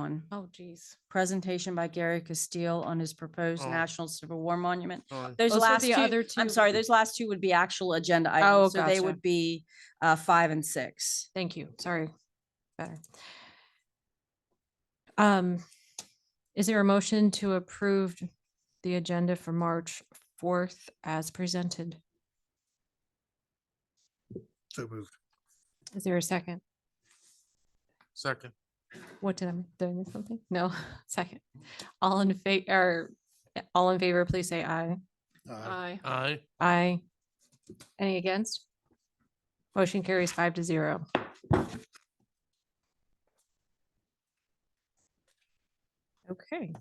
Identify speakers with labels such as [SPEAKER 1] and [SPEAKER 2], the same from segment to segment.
[SPEAKER 1] one.
[SPEAKER 2] Oh, geez.
[SPEAKER 1] Presentation by Gary Castile on his proposed
[SPEAKER 3] Oh.
[SPEAKER 1] National Civil War Monument.
[SPEAKER 3] Oh,
[SPEAKER 1] Those
[SPEAKER 2] Those were
[SPEAKER 1] last
[SPEAKER 2] the
[SPEAKER 1] two,
[SPEAKER 2] other
[SPEAKER 1] I'm
[SPEAKER 2] two.
[SPEAKER 1] sorry, those last two would be actual agenda
[SPEAKER 2] Oh,
[SPEAKER 1] items. So they
[SPEAKER 2] gotcha.
[SPEAKER 1] would be uh, five and six.
[SPEAKER 2] Thank you. Sorry. Better. Um, is there a motion to approve the agenda for March fourth as presented?
[SPEAKER 3] So moved.
[SPEAKER 2] Is there a second?
[SPEAKER 3] Second.
[SPEAKER 2] What did I, m- did I miss something? No, second. All in favor, or yeah, all in favor, please say aye. Aye.
[SPEAKER 3] Aye.
[SPEAKER 2] Aye. Any against? Motion carries five to zero. Okay.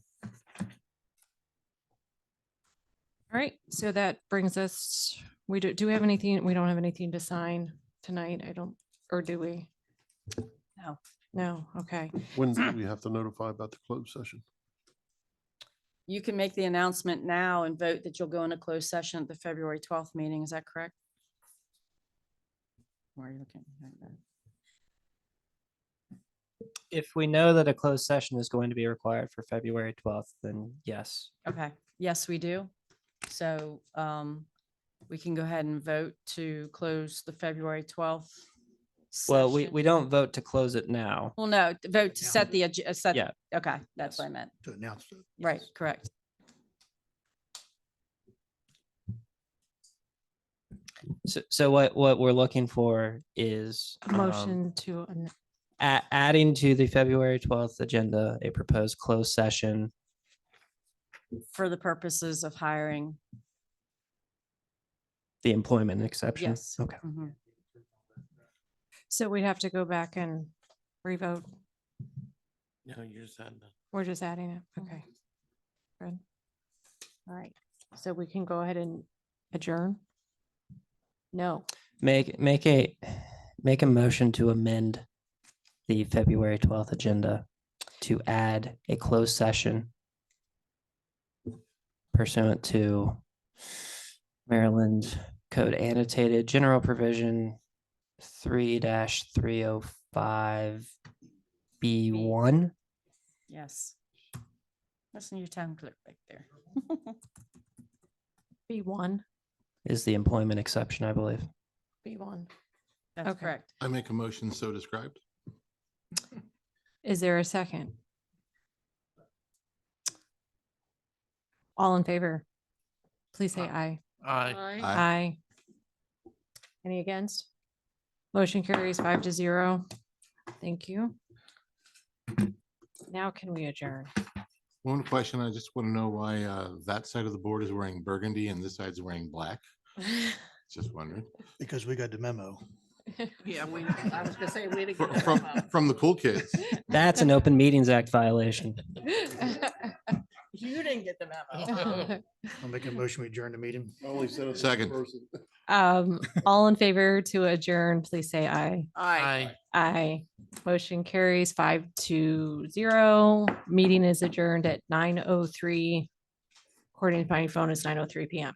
[SPEAKER 2] All right, so that brings us, we do, do we have anything, we don't have anything to sign tonight, I don't, or do we?
[SPEAKER 1] No.
[SPEAKER 2] No, okay.
[SPEAKER 4] When do we have to notify about the closed session?
[SPEAKER 1] You can make the announcement now and vote that you'll go into closed session at the February twelfth meeting. Is that correct? Why are you looking? like that?
[SPEAKER 5] if we know that a closed session is going to be required for February 12th, then yes.
[SPEAKER 1] Okay, yes, we do. So um, we can go ahead and vote to close the February twelfth.
[SPEAKER 5] Well, we, we don't vote to close it now.
[SPEAKER 1] Well, no, t- vote to
[SPEAKER 3] Yeah.
[SPEAKER 1] set the, ag- uh, set,
[SPEAKER 5] Yeah.
[SPEAKER 1] okay, that's what I meant.
[SPEAKER 3] To announce it.
[SPEAKER 1] Right, correct.
[SPEAKER 5] So, so what, what we're looking for is um,
[SPEAKER 2] Motion to, an-
[SPEAKER 5] a- adding to the February 12th agenda, a proposed closed session.
[SPEAKER 1] For the purposes of hiring.
[SPEAKER 5] The employment exception.
[SPEAKER 1] Yes.
[SPEAKER 5] Okay.
[SPEAKER 1] Mhm.
[SPEAKER 2] so we'd have to go back and revote,
[SPEAKER 3] No, you're saying.
[SPEAKER 2] we're just adding it,
[SPEAKER 1] Mhm.
[SPEAKER 2] okay. Good. All right, so we can go ahead and adjourn? No.
[SPEAKER 5] Make, make a, make a motion to amend the February 12th agenda to add a closed session pursuant to Maryland Code Annotated General Provision three three oh five B one.
[SPEAKER 1] Yes. Listen to your town clerk back there.
[SPEAKER 2] B one,
[SPEAKER 5] Is the employment exception, I believe.
[SPEAKER 2] B one.
[SPEAKER 1] That's
[SPEAKER 2] Okay.
[SPEAKER 1] correct.
[SPEAKER 6] I make a motion so described.
[SPEAKER 2] Is there a second? All in favor? Please say aye.
[SPEAKER 3] Aye.
[SPEAKER 6] Aye.
[SPEAKER 2] Aye. Any against? Motion carries five to zero. Thank you. Now can we adjourn?
[SPEAKER 6] One question, I just want to know why uh, that side of the board is wearing burgundy and this side's wearing black. Just wondering.
[SPEAKER 3] Because we got the memo.
[SPEAKER 7] Yeah, we, I was gonna say, we didn't
[SPEAKER 6] Fr-
[SPEAKER 7] get
[SPEAKER 6] From,
[SPEAKER 7] that
[SPEAKER 6] from the cool kids.
[SPEAKER 5] That's an Open Meetings Act violation.
[SPEAKER 7] memo. You didn't get the memo.
[SPEAKER 3] I'll make a motion, we adjourn the meeting.
[SPEAKER 6] Second.
[SPEAKER 2] Um, all in favor to adjourn, please say aye.
[SPEAKER 7] Aye.
[SPEAKER 2] Aye. Motion carries five to zero. Meeting is adjourned at nine oh three. According to my phone, it's nine oh three PM.